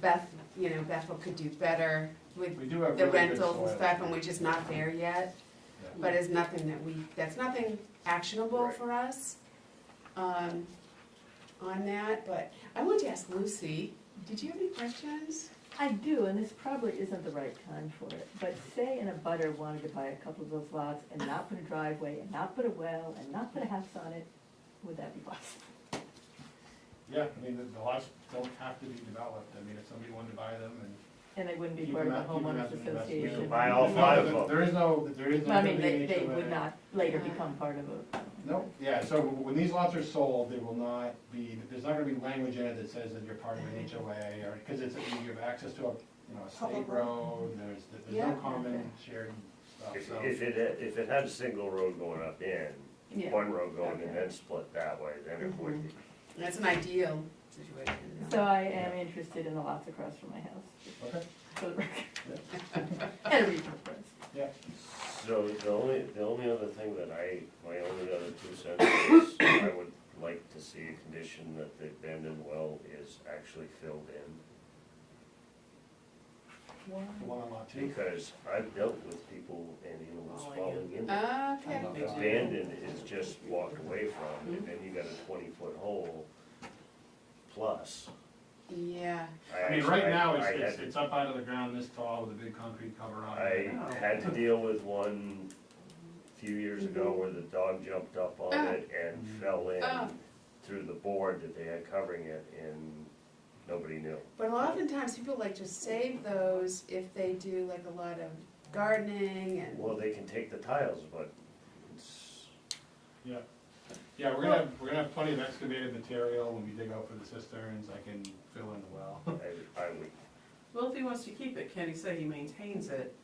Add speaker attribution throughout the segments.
Speaker 1: Beth, you know, Bethel could do better with
Speaker 2: We do have
Speaker 1: the
Speaker 2: really good
Speaker 1: rentals and
Speaker 2: soil.
Speaker 1: stuff, and we're just not there yet.
Speaker 2: Yeah.
Speaker 1: But it's nothing that we, that's nothing actionable for us, um, on that, but I wanted to ask Lucy, did you have any questions?
Speaker 3: I do, and this probably isn't the right time for it, but say an abutter wanted to buy a couple of those lots and not put a driveway, and not put a well, and not put a house on it, would that be possible?
Speaker 2: Yeah, I mean, the, the lots don't have to be developed, I mean, if somebody wanted to buy them and.
Speaker 3: And they wouldn't be
Speaker 2: You
Speaker 3: part of a
Speaker 2: cannot- you cannot
Speaker 3: homeowners
Speaker 2: do that. You
Speaker 3: association.
Speaker 2: can
Speaker 4: buy all
Speaker 2: No,
Speaker 4: five
Speaker 2: there-
Speaker 4: of them.
Speaker 2: There is no, there is no.
Speaker 3: I mean, they, they
Speaker 2: delineation of
Speaker 3: would
Speaker 2: it.
Speaker 3: not later
Speaker 1: Yeah.
Speaker 3: become part of a,
Speaker 2: No, yeah, so when these lots are sold, they will not be, there's not gonna be language in it that says that you're part of an HOA or, cause it's, you have access to a, you know, a state
Speaker 1: Public
Speaker 2: road, there's, there's
Speaker 1: Yeah.
Speaker 2: no common shared stuff,
Speaker 4: If,
Speaker 2: so.
Speaker 4: if it, had- if it had a single road going up in,
Speaker 3: yeah.
Speaker 4: one road going
Speaker 3: Okay. Mm-hmm.
Speaker 4: and then split that way, then it would be.
Speaker 1: That's an ideal situation.
Speaker 3: So I am interested in the lots across from my house,
Speaker 2: Okay,
Speaker 3: for the record. And a regional forest.
Speaker 2: yeah,
Speaker 4: So the only, the only other thing that I, my only other two cents is, I would like to see a condition that the abandoned well is actually filled in.
Speaker 2: the one on lot two.
Speaker 4: Because I've dealt with people and
Speaker 3: Oh,
Speaker 4: animals falling in.
Speaker 3: Uh,
Speaker 4: there.
Speaker 1: Okay,
Speaker 4: Abandoned is just walked away from,
Speaker 3: Mm-hmm.
Speaker 4: and then you got a twenty-foot hole plus.
Speaker 1: yeah,
Speaker 2: I mean, right
Speaker 4: actually-
Speaker 2: now,
Speaker 4: I
Speaker 2: it's,
Speaker 4: had
Speaker 2: it's,
Speaker 4: to
Speaker 2: it's up out of the ground this tall with a big concrete cover on
Speaker 4: I
Speaker 2: it.
Speaker 4: had to deal with one a few years ago where the dog jumped up on
Speaker 1: Mm-hmm. Ah.
Speaker 4: it and fell in
Speaker 1: Ah.
Speaker 4: through the board that they had covering it and nobody knew.
Speaker 1: but oftentimes people like to save those if they do like a lot of gardening and.
Speaker 4: Well, they can take the tiles, but it's,
Speaker 2: Yeah, yeah, we're gonna, have- we're gonna have plenty of excavated material when we dig out for the cisterns, I can fill in the well.
Speaker 4: I, I would,
Speaker 5: Well, if he wants to keep it, can he say he maintains it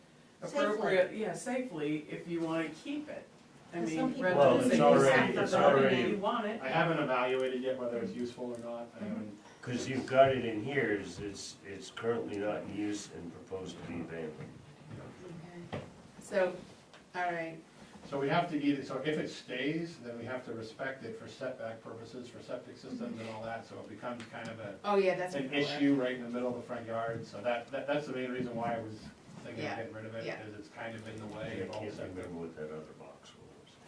Speaker 6: Safely.
Speaker 5: appropriate, yeah, safely, if you wanna keep it? I
Speaker 6: 'Cause
Speaker 5: mean,
Speaker 6: some people
Speaker 5: rather
Speaker 4: Well,
Speaker 5: than
Speaker 4: it's
Speaker 5: say you
Speaker 4: already-
Speaker 5: have to
Speaker 4: it's
Speaker 5: buy it and
Speaker 4: already-
Speaker 5: You want it.
Speaker 2: I haven't evaluated yet whether it's useful or not, I haven't,
Speaker 4: cause you've got it in here, it's- it's, it's currently not in use and proposed to be abandoned.
Speaker 1: Okay. So, all right,
Speaker 2: So we have to either, so if it stays, then we have to respect it for setback purposes, for septic systems and all that, so it becomes kind of a,
Speaker 1: oh yeah, that's. a
Speaker 2: an
Speaker 1: good one.
Speaker 2: issue right in the middle of the front yard, so that, that, that's the main reason why I was thinking
Speaker 1: Yeah,
Speaker 2: of getting rid of it,
Speaker 1: yeah.
Speaker 2: because it's kind of in the
Speaker 4: I
Speaker 2: way
Speaker 4: can't
Speaker 2: of all the septic.
Speaker 4: remember what that other box was.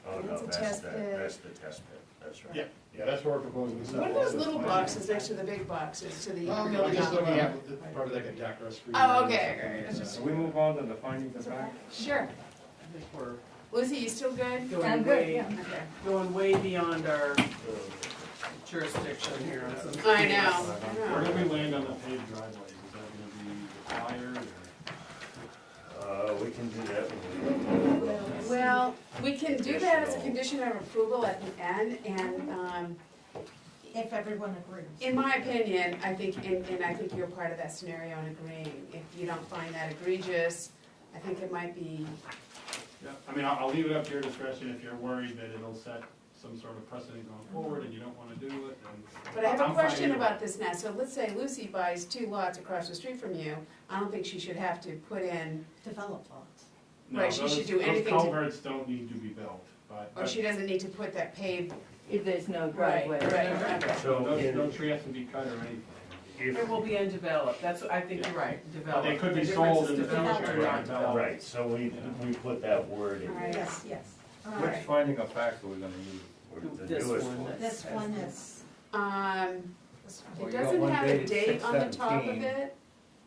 Speaker 4: Oh,
Speaker 1: That's a
Speaker 4: no, that's
Speaker 1: test
Speaker 4: the,
Speaker 1: pit.
Speaker 4: that's the test pit, that's right.
Speaker 2: Yeah, yeah, that's what we're proposing.
Speaker 1: What are those little boxes next to the big boxes to the
Speaker 2: Oh,
Speaker 1: building?
Speaker 2: no, we're just
Speaker 1: envelope?
Speaker 2: looking at the- probably like a deck or a screen.
Speaker 1: Oh,
Speaker 2: or
Speaker 1: okay,
Speaker 2: something
Speaker 1: okay,
Speaker 2: like
Speaker 1: it's
Speaker 2: that.
Speaker 1: just-
Speaker 2: So we move on to the findings of fact?
Speaker 1: Sure.
Speaker 5: I think we're
Speaker 1: Lucy, you still good?
Speaker 3: I'm
Speaker 5: going
Speaker 3: good,
Speaker 5: way,
Speaker 3: yeah.
Speaker 1: Okay.
Speaker 5: going way beyond our jurisdiction here on some.
Speaker 1: I know, I
Speaker 2: Where
Speaker 1: know.
Speaker 2: do we land on the paved driveways? Is that gonna be required or?
Speaker 4: Uh, we can do that when we.
Speaker 1: Well, we can do that as a condition of approval at the end, and, um,
Speaker 6: If everyone agrees.
Speaker 1: in my opinion, I think, and, and I think you're part of that scenario in agreeing. If you don't find that egregious, I think it might be,
Speaker 2: Yeah, I mean, I'll, I'll leave it up to your discretion if you're worried that it'll set some sort of precedent going forward and you don't wanna do it, then.
Speaker 1: but I have
Speaker 2: I'm
Speaker 1: a
Speaker 2: fine
Speaker 1: question
Speaker 2: either way.
Speaker 1: about this now. So let's say Lucy buys two lots across the street from you. I don't think she should have to put in,
Speaker 6: Develop lots.
Speaker 2: No,
Speaker 1: right, she
Speaker 2: those-
Speaker 1: should do anything to-
Speaker 2: Those culverts don't need to be built, but,
Speaker 1: or
Speaker 2: but
Speaker 1: she doesn't need to put that paved,
Speaker 3: If there's no driveway.
Speaker 1: right, okay.
Speaker 4: So
Speaker 2: no,
Speaker 4: in-
Speaker 2: no tree has to be cut or anything.
Speaker 4: if-
Speaker 5: It will be undeveloped, that's, I think you're right,
Speaker 2: But
Speaker 5: developed.
Speaker 2: They could be
Speaker 5: difference
Speaker 2: sold
Speaker 5: is
Speaker 2: in the
Speaker 5: developed
Speaker 2: future.
Speaker 5: or
Speaker 2: not
Speaker 5: not developed.
Speaker 2: developed.
Speaker 4: Right, so we, we put that word in
Speaker 1: Alright.
Speaker 4: there.
Speaker 6: Yes, yes.
Speaker 1: all
Speaker 7: Which
Speaker 1: right.
Speaker 7: finding of facts are we gonna use?
Speaker 4: We're the
Speaker 5: This
Speaker 4: newest
Speaker 5: one,
Speaker 4: one.
Speaker 6: This one is,
Speaker 1: Um,
Speaker 6: this
Speaker 7: Well,
Speaker 1: it
Speaker 7: you got
Speaker 1: doesn't
Speaker 7: one
Speaker 1: have a
Speaker 7: dated
Speaker 1: date on the top of
Speaker 7: 6/17.
Speaker 1: it,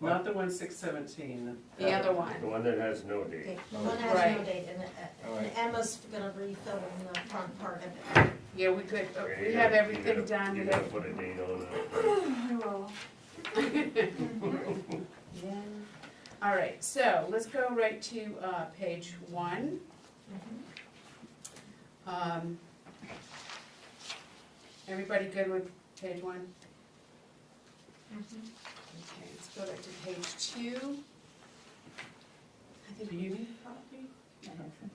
Speaker 5: Not the one six seventeen.
Speaker 1: the other
Speaker 5: Uh-huh.
Speaker 1: one.
Speaker 4: The one that has no
Speaker 6: okay,
Speaker 4: date.
Speaker 6: one has no
Speaker 1: Right.
Speaker 6: date, and, uh,
Speaker 7: All
Speaker 6: and
Speaker 7: right.
Speaker 6: Emma's gonna refill in the front part of it.
Speaker 1: Yeah, we could, uh,
Speaker 4: Okay,
Speaker 1: we
Speaker 4: you
Speaker 1: have
Speaker 4: gotta- you
Speaker 1: everything
Speaker 4: gotta-
Speaker 1: done,
Speaker 4: You
Speaker 1: we
Speaker 4: gotta
Speaker 1: have.
Speaker 4: put a date on it.
Speaker 1: All right, so let's go right to, uh, page one. Um, Everybody good with page one?
Speaker 6: Mm-hmm.
Speaker 1: Okay, let's go back to page two. I think
Speaker 5: Do you need a copy?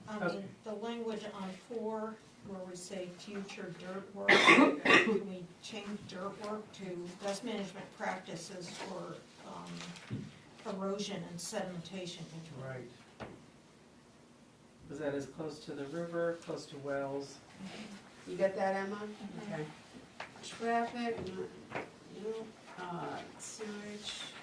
Speaker 6: Um,
Speaker 5: Okay.
Speaker 6: the language on four, where we say future dirt work, can we change dirt work to dust management practices for, um, erosion and sedimentation control?
Speaker 5: Right. Was that as close to the river, close to wells?
Speaker 1: You got that, Emma? Okay. Traffic, no, no, uh, sewage.